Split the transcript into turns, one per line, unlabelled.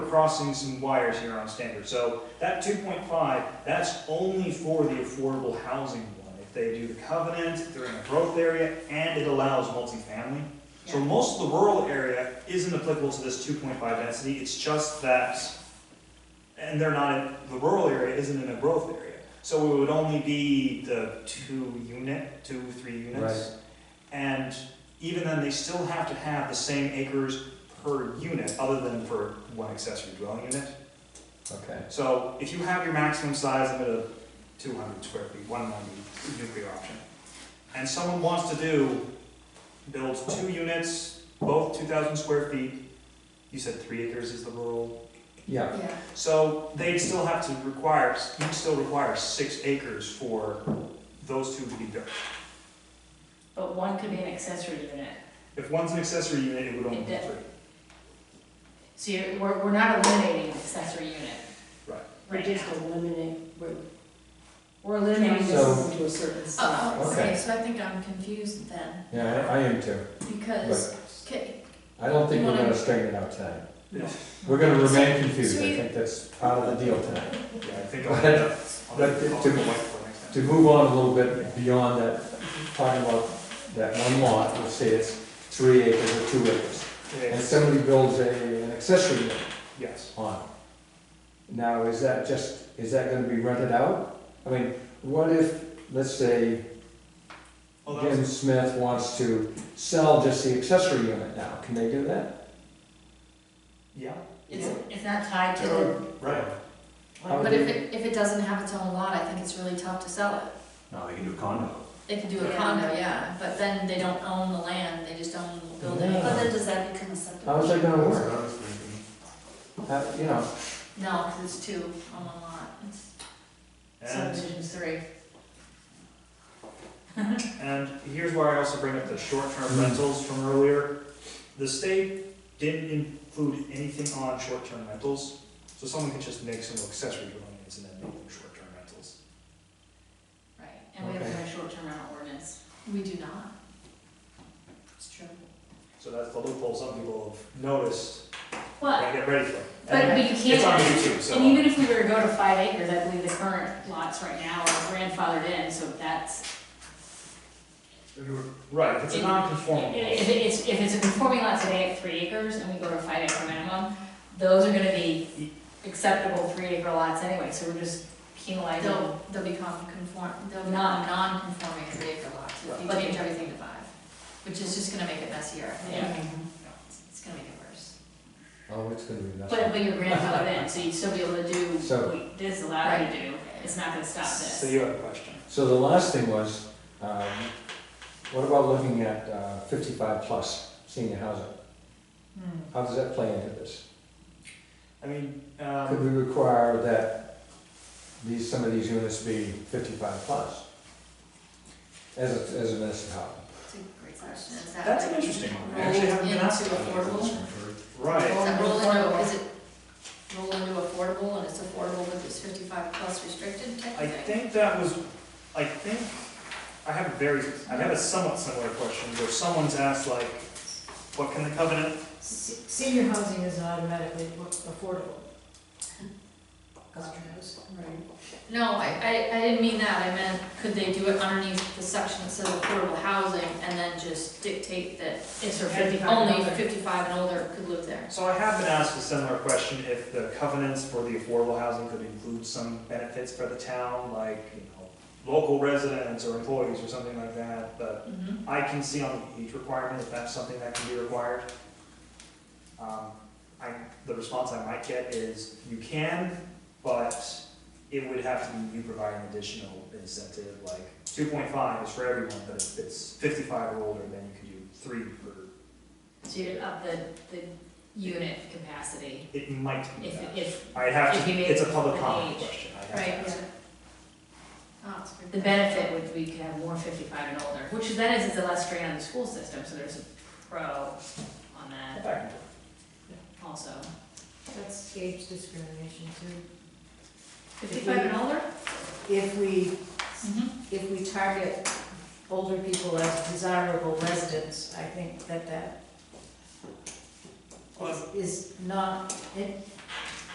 crossing some wires here on standard, so that two point five, that's only for the affordable housing one. If they do the covenant, if they're in a growth area, and it allows multifamily. So
Yeah.
most of the rural area isn't applicable to this two point five density, it's just that, and they're not, in the rural area isn't in a growth area. So it would only be the two unit, two, three units. And even then, they still have to have the same acres per unit, other than for one accessory dwelling unit.
Okay.
So if you have your maximum size limit of two hundred square feet, one ninety nuclear option, and someone wants to do, build two units, both two thousand square feet, you said three acres is the rural,
Yeah,
Yeah,
so they'd still have to require, you'd still require six acres for those two to be built.
but one could be an accessory unit.
If one's an accessory unit, it would only be
It-
three.
So you're, we're, we're not eliminating an accessory unit.
Right.
We're
Right now.
just eliminating, we're
We're
limiting
eliminating
So-
this.
this to a certain
Oh,
size.
oh,
Okay.
okay, so I think I'm confused then,
yeah, I I am too,
because,
but
okay,
I don't think we're gonna
Wanna-
straighten it out tonight.
Yeah.
We're gonna remain confused, I
Sweet.
think that's part of the deal tonight.
Yeah, I think I'll end up, I'll
But
end
to-
up the white for next time.
To move on a little bit beyond that, talking about that one lot, let's say it's three acres or two acres.
Okay,
And somebody builds a, an accessory unit
Yes,
on it. Now, is that just, is that gonna be rented out? I mean, what if, let's say,
well, that was-
Jim Smith wants to sell just the accessory unit now, can they do that?
yeah,
it's, it's not tied to
Sure.
the
right.
How would
But if
they-
it, if it doesn't have its own lot, I think it's really tough to sell it.
No, they can do a condo.
They can do a
Yeah.
condo, yeah, but then they don't own the land, they just own the building.
Yeah.
But then does that become a subdivision?
How's that gonna work?
I was thinking.
Uh, you know,
No, because it's two on one lot, it's
And
subdivision three.
And here's why I also bring up the short-term rentals from earlier. The state didn't include anything on short-term rentals, so someone could just make some accessory dwelling units and then make them short-term rentals.
Right, and we have
Okay.
a short-term rental ordinance. We do not. It's true.
So that's the loophole some people have noticed,
But,
gotta get ready for. it.
but but
And
you
It's on
can't,
YouTube,
and even
so.
if we were to go to five acres, I believe the current lots right now are grandfathered in, so that's,
Right, if it's a non-conforming.
if
law.
it's, if it's a conforming lot today at three acres and we go to five acre minimum, those are gonna be acceptable three acre lots anyway, so we're just penalizing.
oh, They'll, they'll become conform, they'll become
Non-
non-conforming three acre lots if you
Right.
change everything to five, which is just gonna make it messier, I think.
Yeah.
It's- It's gonna make it worse.
oh, it's gonna be nothing.
But, but your grandfathered in, so you'd still be able to do
So-
what this allowed you to do, it's not gonna stop
So
this.
you have a question.
So the last thing was, um, what about looking at uh, fifty-five plus senior housing? How does that play into this?
I mean,
Could
um,
we require that these, some of these units be fifty-five plus? As, a- as a municipality?
It's a great question, is that?
that's an
like-
interesting one. I
Roll
actually haven't been
into
asked about that.
affordable?
Right,
Does that
Roll
roll
into
into,
affordable.
is it roll into affordable and it's affordable but it's fifty-five plus restricted type
I
of thing?
think that was, I think, I have a very, I have a somewhat similar question where someone's asked like, what can the covenant,
Se- Senior housing is automatically affordable. Right.
No, I, I, I didn't mean that, I meant, could they do it underneath the section that says affordable housing and then just dictate that
It's for
only fifty-five and older could live there?
so I have been asked a similar question if the covenants for the affordable housing could include some benefits for the town, like, you know, local residents or employees or something like that, but
Mm-hmm.
Mhm.
I can see on the age requirement if that's something that can be required. Um, I, the response I might get is, you can, but it would have to be you providing additional incentive, like, two point five is for everyone, but if it's fifty-five or older, then you can do three per,
So you up the, the unit capacity,
it might be
if,
that.
if
I have
if
to,
you made
it's a
it
public
an
comment
age.
question, I have to
Right,
ask.
yeah. Oh, that's a good
the
point.
benefit would be you could have more fifty-five and older, which then is, it's a less strain on the school system, so there's a pro on that
Back and forth.
also.
That's age discrimination too.
Fifty-five and older?
If we,
Mm-hmm.
if we target older people as desirable residents, I think that that is not, it